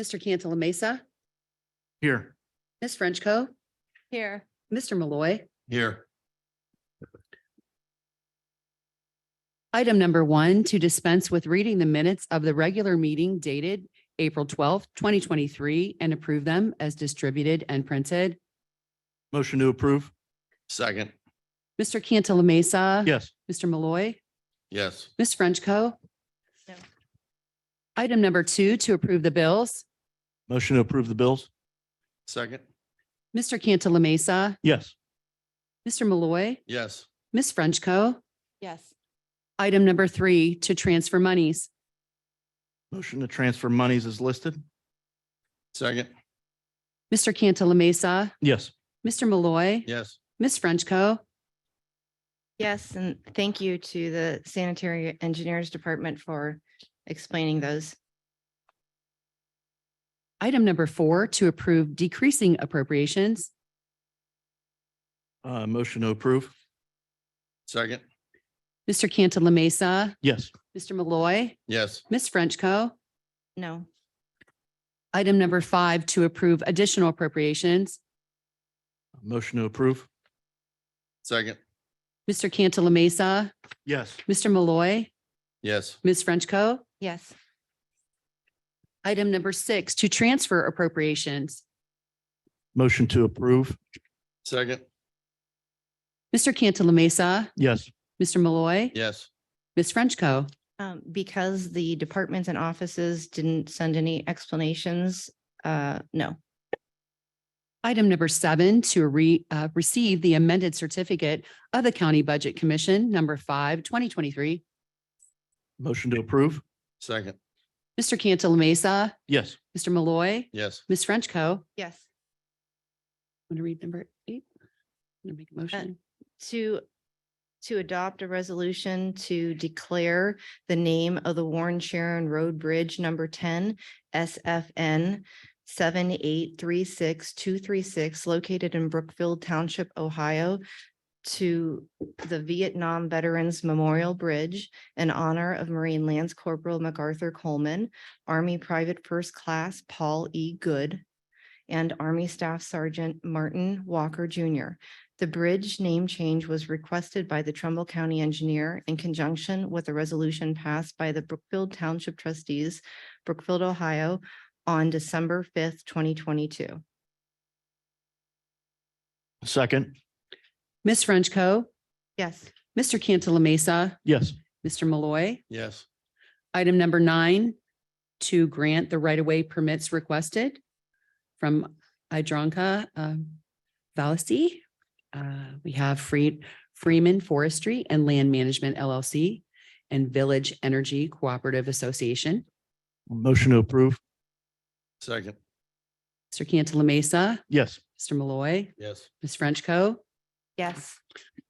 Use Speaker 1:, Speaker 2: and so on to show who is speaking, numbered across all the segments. Speaker 1: Mr. Cantala Mesa,
Speaker 2: Here.
Speaker 1: Ms. Frenchco,
Speaker 3: Here.
Speaker 1: Mr. Malloy.
Speaker 2: Here.
Speaker 1: Item number one, to dispense with reading the minutes of the regular meeting dated April twelfth, twenty twenty-three, and approve them as distributed and printed.
Speaker 2: Motion to approve.
Speaker 4: Second,
Speaker 1: Mr. Cantala Mesa.
Speaker 2: Yes.
Speaker 1: Mr. Malloy.
Speaker 4: yes,
Speaker 1: Ms. Frenchco.
Speaker 3: No.
Speaker 1: Item number two, to approve the bills.
Speaker 2: Motion to approve the bills.
Speaker 4: second,
Speaker 1: Mr. Cantala Mesa,
Speaker 2: Yes.
Speaker 1: Mr. Malloy,
Speaker 4: yes,
Speaker 1: Ms. Frenchco.
Speaker 3: Yes.
Speaker 1: Item number three, to transfer monies.
Speaker 2: Motion to transfer monies is listed.
Speaker 4: second,
Speaker 1: Mr. Cantala Mesa,
Speaker 2: Yes.
Speaker 1: Mr. Malloy,
Speaker 4: yes,
Speaker 1: Ms. Frenchco.
Speaker 3: Yes, and thank you to the sanitary engineers department for explaining those.
Speaker 1: Item number four, to approve decreasing appropriations.
Speaker 2: Uh, motion to approve.
Speaker 4: second,
Speaker 1: Mr. Cantala Mesa,
Speaker 2: Yes.
Speaker 1: Mr. Malloy,
Speaker 4: yes,
Speaker 1: Ms. Frenchco.
Speaker 3: No.
Speaker 1: Item number five, to approve additional appropriations.
Speaker 2: Motion to approve.
Speaker 4: second,
Speaker 1: Mr. Cantala Mesa,
Speaker 2: Yes.
Speaker 1: Mr. Malloy,
Speaker 4: yes,
Speaker 1: Ms. Frenchco.
Speaker 3: Yes.
Speaker 1: Item number six, to transfer appropriations.
Speaker 2: Motion to approve.
Speaker 4: second,
Speaker 1: Mr. Cantala Mesa,
Speaker 2: Yes.
Speaker 1: Mr. Malloy,
Speaker 4: yes,
Speaker 1: Ms. Frenchco.
Speaker 3: Um, because the departments and offices didn't send any explanations, uh, no.
Speaker 1: Item number seven, to re, uh, receive the amended certificate of the County Budget Commission, number five, 2023.
Speaker 2: Motion to approve.
Speaker 4: second,
Speaker 1: Mr. Cantala Mesa,
Speaker 2: Yes.
Speaker 1: Mr. Malloy,
Speaker 4: yes,
Speaker 1: Ms. Frenchco.
Speaker 3: Yes.
Speaker 1: Want to read number eight? I'm gonna make a motion.
Speaker 3: to, to adopt a resolution to declare the name of the Warren Sharon Road Bridge number ten, SFN seven eight three six two three six, located in Brookfield Township, Ohio, to the Vietnam Veterans Memorial Bridge in honor of Marine Lance Corporal MacArthur Coleman, Army Private First Class Paul E. Good, and Army Staff Sergeant Martin Walker Jr. The bridge name change was requested by the Trumbull County Engineer in conjunction with a resolution passed by the Brookfield Township Trustees, Brookfield, Ohio, on December fifth, twenty twenty-two.
Speaker 2: Second.
Speaker 1: Ms. Frenchco,
Speaker 3: Yes.
Speaker 1: Mr. Cantala Mesa,
Speaker 2: Yes.
Speaker 1: Mr. Malloy.
Speaker 4: yes,
Speaker 1: Item number nine, to grant the right-of-way permits requested from Idronka um, Valisi. Uh, We have Free- Freeman Forestry and Land Management LLC and Village Energy Cooperative Association.
Speaker 2: Motion to approve.
Speaker 4: second,
Speaker 1: Mr. Cantala Mesa,
Speaker 2: Yes.
Speaker 1: Mr. Malloy,
Speaker 4: yes,
Speaker 1: Ms. Frenchco.
Speaker 3: Yes.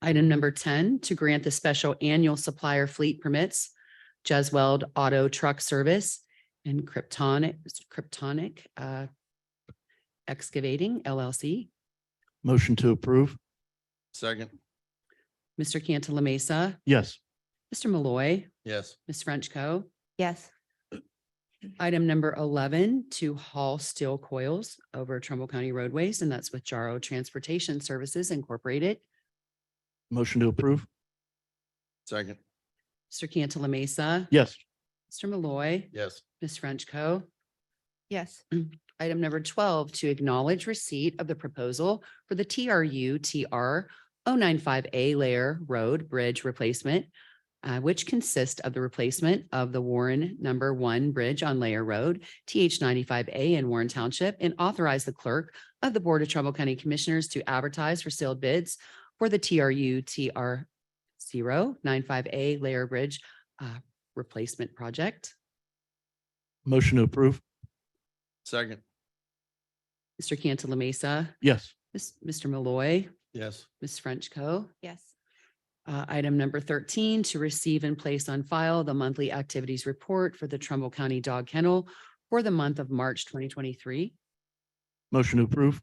Speaker 1: Item number ten, to grant the special annual supplier fleet permits, Jesweld Auto Truck Service and Kryptonic, Kryptonic uh, Excavating LLC.
Speaker 2: Motion to approve.
Speaker 4: second,
Speaker 1: Mr. Cantala Mesa,
Speaker 2: Yes.
Speaker 1: Mr. Malloy,
Speaker 4: yes,
Speaker 1: Ms. Frenchco.
Speaker 3: Yes.
Speaker 1: Item number eleven, to haul steel coils over Trumbull County roadways, and that's with Jaro Transportation Services Incorporated.
Speaker 2: Motion to approve.
Speaker 4: second,
Speaker 1: Mr. Cantala Mesa,
Speaker 2: Yes.
Speaker 1: Mr. Malloy,
Speaker 4: yes,
Speaker 1: Ms. Frenchco.
Speaker 3: Yes.
Speaker 1: Item number twelve, to acknowledge receipt of the proposal for the TRU TR 095A layer road bridge replacement, uh, which consists of the replacement of the Warren Number One Bridge on Layer Road, TH 95A in Warren Township, and authorize the clerk of the Board of Trumbull County Commissioners to advertise for sealed bids for the TRU TR 095A layer bridge uh, replacement project.
Speaker 2: Motion to approve.
Speaker 4: second,
Speaker 1: Mr. Cantala Mesa,
Speaker 2: Yes.
Speaker 1: Ms- Mr. Malloy.
Speaker 4: yes,
Speaker 1: Ms. Frenchco.
Speaker 3: Yes.
Speaker 1: Uh, Item number 13, to receive and place on file the monthly activities report for the Trumbull County Dog Kennel for the month of March 2023.
Speaker 2: Motion to approve.